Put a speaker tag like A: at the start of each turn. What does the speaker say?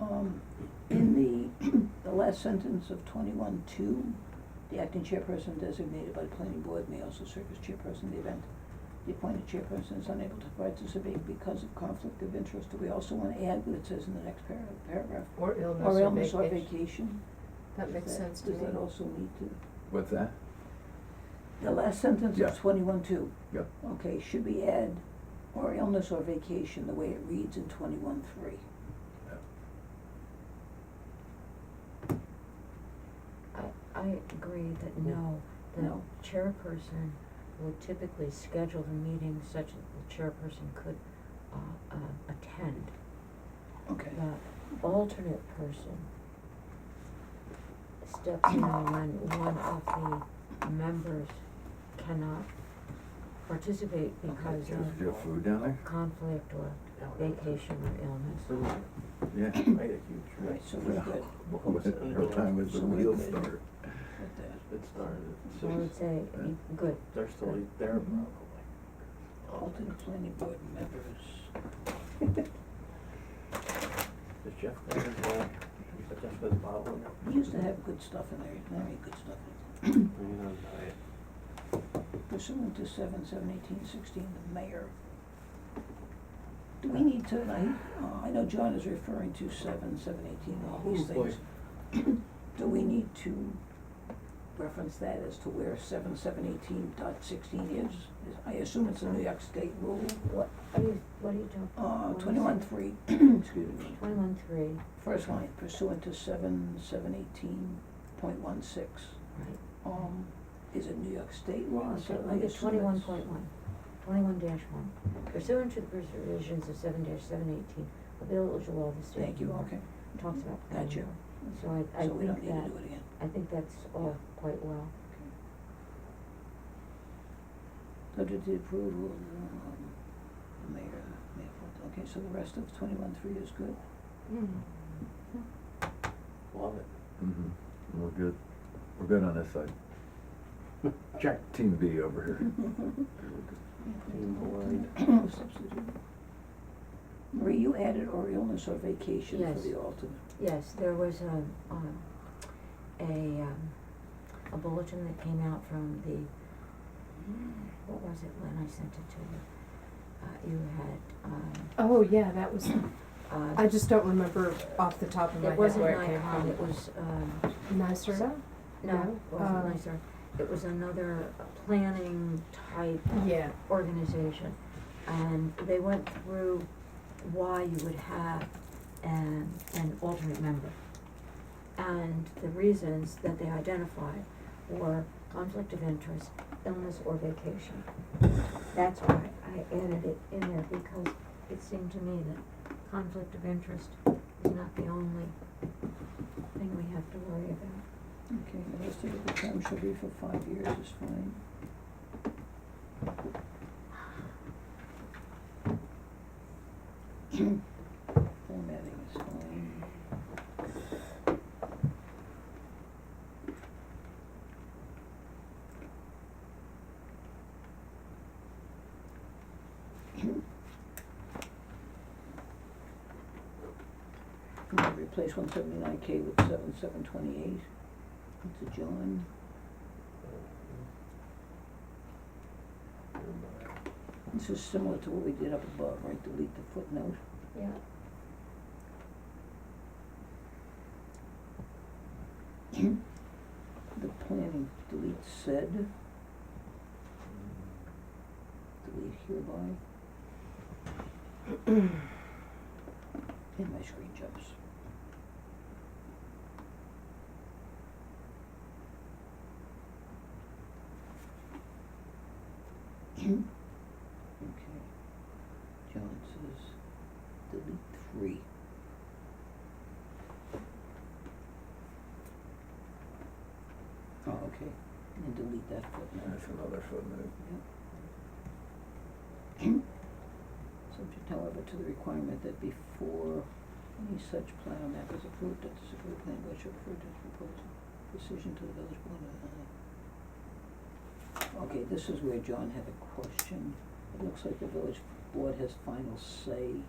A: Um, in the, the last sentence of twenty-one two, the acting chairperson designated by the planning board may also serve as chairperson of the event. The appointed chairperson is unable to participate because of conflict of interest. Do we also wanna add what it says in the next para- paragraph?
B: Or illness
A: Or
B: or
A: illness or
B: vacation.
A: vacation?
B: That
A: Does
B: makes sense to
A: Does that
B: me.
A: also need to?
C: What's that?
A: The last sentence
C: Yeah.
A: of twenty-one two.
C: Yeah.
A: Okay, should we add or illness or vacation, the way it reads in twenty-one three?
D: I, I agree that no, the
A: No.
D: chairperson will typically schedule the meeting such that the chairperson could, uh, uh, attend.
A: Okay.
B: Uh,
D: The alternate person steps in when one of the members cannot participate
C: Is
D: because of
C: there food down there?
D: conflict or vacation or illness.
C: Yeah.
E: Made a huge
A: Right, so we're good
C: What time was the
A: So we
C: wheel
A: did.
C: start?
A: with that.
E: It started
D: So I would say, be good.
E: They're still eat there
A: Mhm.
E: probably.
C: Mm-hmm.
A: Alternate planning board members.
E: Is Jeff there as well? Is Jeff with the bottle in there?
A: We used to have good stuff in there, not really good stuff.
E: Bring it on diet.
A: Pursuant to seven, seven, eighteen, sixteen, the mayor. Do we need to, and I, uh, I know John is referring to seven, seven, eighteen, all these
E: Oh, boy.
A: things. Do we need to reference that as to where seven, seven, eighteen dot sixteen is? Is- I assume it's a New York State rule,
D: What, are you, what are you talking?
A: uh, twenty-one, three, excuse me.
D: Twenty-one three,
A: First line pursuant to seven, seven, eighteen point one six.
D: right.
A: Um, is it New York State law?
D: Okay,
A: So I
D: look at
A: assume
D: twenty-one
A: it's-
D: point one, twenty-one dash one. Pursuant to the provisions of seven dash seven eighteen, a village law of the state. of
A: Thank you,
D: New York
A: okay.
D: Talks about. the
A: Gotcha.
D: law. So I, I
A: So we don't need
D: think
A: to
D: that,
A: do it again.
D: I think that's all quite well.
A: Subject to the approval of the, um, the mayor, mayor, vote. okay, so the rest of twenty-one three is good?
F: Mm.
E: Love it.
C: Mm-hmm, we're good, we're good on this side. Check. Team B over here.
E: Team
A: Substitute. Marie, you added or illness or vacation for
D: Yes.
A: the alternate.
D: Yes, there was a, um, a, um, a bulletin that came out from the, what was it when I sent it to you? Uh, you had, um,
F: Oh, yeah, that was,
D: uh.
F: Oh, I just don't remember off the top of my
D: It
F: head where
D: wasn't
F: it came
D: Nikon,
F: from.
D: it was, um,
F: NYSERDA?
D: No, it wasn't
F: Um,
D: nicer. It was another planning type
F: Yeah,
D: organization. And they went through why you would have an, an alternate member. And the reasons that they identified were conflict of interest, illness or vacation. That's why I added it in there because it seemed to me that conflict of interest is not the only thing we have to worry about.
A: Okay, the rest of the term should be for five years is fine. Formatting is fine. I'm gonna Replace one seventy-nine K with seven, seven twenty-eight. It's a John. This is similar to what we did up above, right, delete the footnote.
D: Yeah.
A: The planning, delete said,
E: Mm.
A: delete hereby. And my screen jumps. Okay. John says, delete three. Oh, okay, and delete that footnote.
C: That's another footnote.
A: Subject however to the requirement that before any such plan or map is approved, that the supervisor plan board should refer to its proposal decision to the village board. uh, Okay, this is where John had a question. It looks like the village board has final say